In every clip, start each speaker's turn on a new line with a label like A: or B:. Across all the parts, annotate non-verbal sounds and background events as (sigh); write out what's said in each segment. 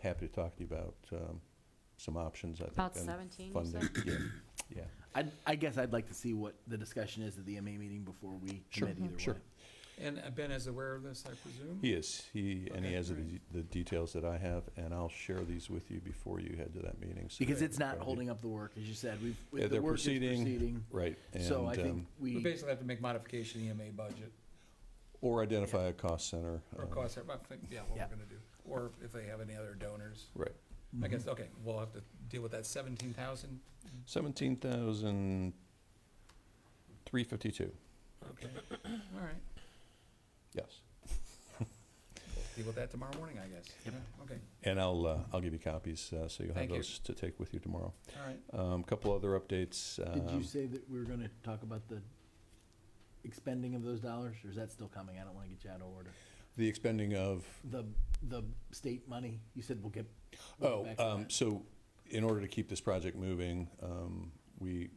A: happy to talk to you about um, some options, I think.
B: About
A: on
B: 17, you
A: funding. Yeah, yeah.
C: I, I guess I'd like to see what the discussion is at the MA meeting before we
A: Sure,
C: commit either
A: sure.
C: way.
D: And uh, Ben is aware of this, I presume?
A: He is, he, and he
D: Okay,
A: has the,
D: great.
A: the details that I have, and I'll share these with you before you head to that meeting. so
C: Because
A: that
C: it's not
A: everybody-
C: holding up the work, as you said, we've,
A: Yeah,
C: the
A: they're
C: work is
A: proceeding,
C: proceeding.
A: Right,
C: So I
A: and,
C: think
A: um,
C: we,
D: We basically have to make modification to EMA budget,
A: or identify a cost center.
D: or
A: um,
D: cost, I think, yeah, what
C: Yeah.
D: we're gonna do, or if they have any other donors.
A: Right,
D: I
A: Mm-hmm.
C: Mhm.
D: guess, okay, we'll have to deal with that seventeen thousand,
A: seventeen thousand three fifty-two,
D: okay, all right.
A: yes.
D: We'll Deal with that tomorrow morning, I guess, Yeah, okay,
A: And I'll, uh, I'll give you copies, uh, so you'll have
D: Thank you.
A: those to take with you tomorrow.
D: all right.
A: Um, couple other updates.
C: did you
A: um,
C: say that we were gonna talk about the expending of those dollars, or is that still coming? I don't wanna get you out of order.
A: The expending of,
C: The, the state money, you said we'll get. we'll
A: oh,
C: get back on
A: um,
C: that.
A: so in order to keep this project moving, um, we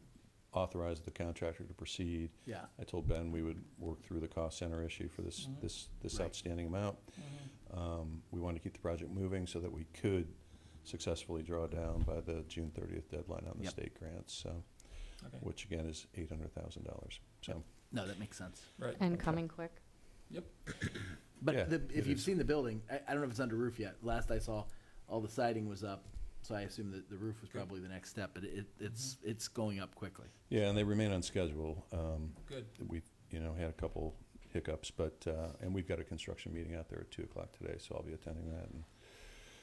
A: authorized the contractor to proceed.
C: Yeah,
A: I told Ben we would work through the cost center issue for this,
D: Mhm.
A: this, this
C: Mm-hmm. Right.
A: outstanding amount.
D: Mm-hmm.
A: Um, We wanted to keep the project moving so that we could successfully draw down by the June 30th deadline on the
C: Yep.
A: state grants, so,
D: Okay,
A: which again is $800,000. So,
C: no, that makes sense.
D: right,
B: And coming quick.
A: Yeah,
C: But the,
A: it
C: if you've
A: is.
C: seen the building, I, I don't know if it's under roof yet. Last I saw, all the siding was up, so I assume that the roof was
D: Good.
C: probably the next step, but it, it's,
A: Mm-hmm.
C: it's going up quickly.
A: yeah, and they remain on schedule. Um,
D: good,
A: We, you know, had a couple hiccups, but, uh, and we've got a construction meeting out there at 2 o'clock today, so I'll be attending that. And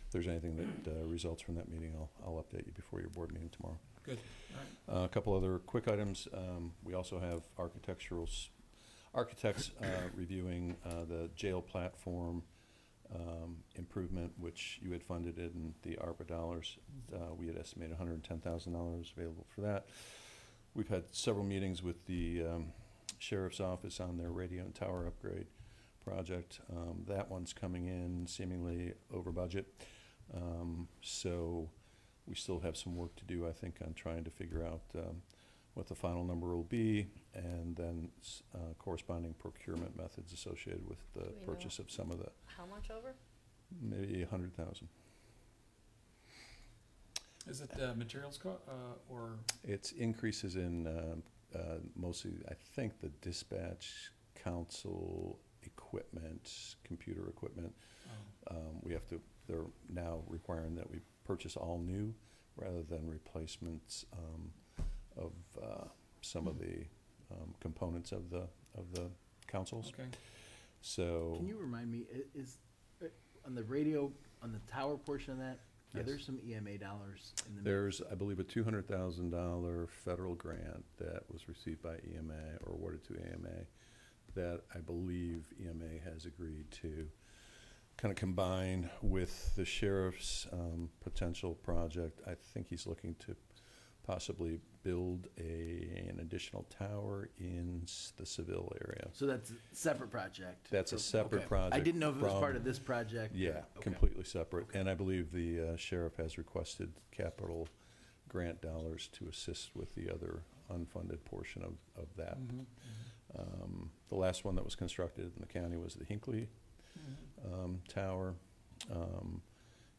A: if there's anything that uh, results from that meeting, I'll, I'll update you before your board meeting tomorrow.
D: good, all right.
A: Uh, A couple other quick items. Um, We also have architectural, s- architects uh, reviewing uh, the jail platform um, improvement, which you had funded it in the ARPA dollars. Uh, We had estimated $110,000 available for that. We've had several meetings with the um, sheriff's office on their radio and tower upgrade project. Um, That one's coming in seemingly over budget. Um, So we still have some work to do, I think, on trying to figure out um, what the final number will be, and then s- uh, corresponding procurement methods associated with the
B: Do we know-
A: purchase of some of the,
B: How much over?
A: maybe a hundred thousand.
D: Is it uh, materials co, uh, or,
A: It's increases in um, uh, mostly, I think, the dispatch council equipment, computer equipment.
D: oh,
A: Um, We have to, they're now requiring that we purchase all new rather than replacements um, of uh, some of the um, components of the, of the councils.
D: okay, Mm-hmm.
A: So.
C: Can you remind me, i- is, uh, on the radio, on the tower portion of that, are
A: Yes.
C: there some EMA dollars in the? mix?
A: There's, I believe, a two hundred thousand dollar federal grant that was received by EMA or awarded to EMA that I believe EMA has agreed to kind of combine with the sheriff's um, potential project. I think he's looking to possibly build a, an additional tower in s- the Seville area.
C: So that's a separate project?
A: That's a
C: So-
A: separate
C: okay. I
A: project
C: didn't know if it was
A: from-
C: part of this project. or-
A: Yeah,
C: okay.
A: completely separate. And I believe the uh, sheriff has requested capital grant dollars to assist with the other unfunded portion of, of that.
D: mhm,
A: Um, The last one that was constructed in the county was the Hinckley
D: mhm,
A: um, Tower. Um,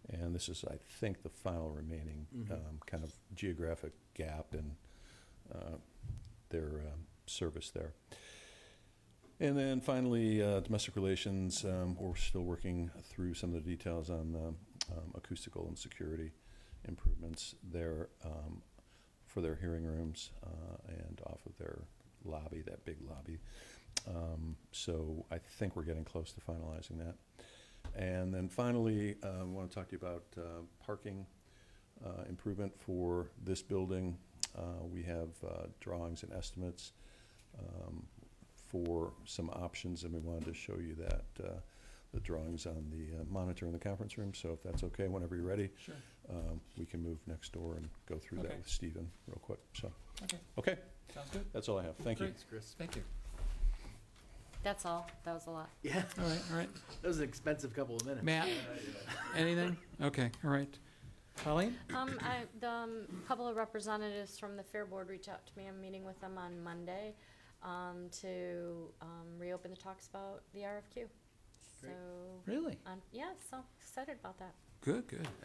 A: And this is, I think, the final remaining
C: Mhm.
A: um, kind of geographic gap in uh, their um, service there. And then finally, uh, domestic relations, um, we're still working through some of the details on the um, acoustical and security improvements there um, for their hearing rooms uh, and off of their lobby, that big lobby. Um, So I think we're getting close to finalizing that. And then finally, I want to talk to you about uh, parking uh, improvement for this building. Uh, We have uh, drawings and estimates um, for some options, and we wanted to show you that, uh, the drawings on the uh, monitor in the conference room. So if that's okay, whenever you're ready,
D: Sure,
A: um, we can move next door and go through that
D: Okay.
A: with Stephen real quick. So,
D: okay,
A: okay,
D: sounds good,
A: that's all I have. Thank you.
D: Great.
C: Thanks, Chris.
D: thank you.
B: That's all. That was a lot.
C: (laughs) Yeah,
D: All right, all right,
C: that was an expensive couple of minutes.
D: Matt, anything? Okay, all right. Colleen?
B: Um, I, the, um, couple of representatives from the Fair Board reached out to me. I'm meeting with them on Monday, um, to, um, reopen the talks about the RFQ. So,
C: Really?
B: um, yeah, so excited about that.
D: Good, good.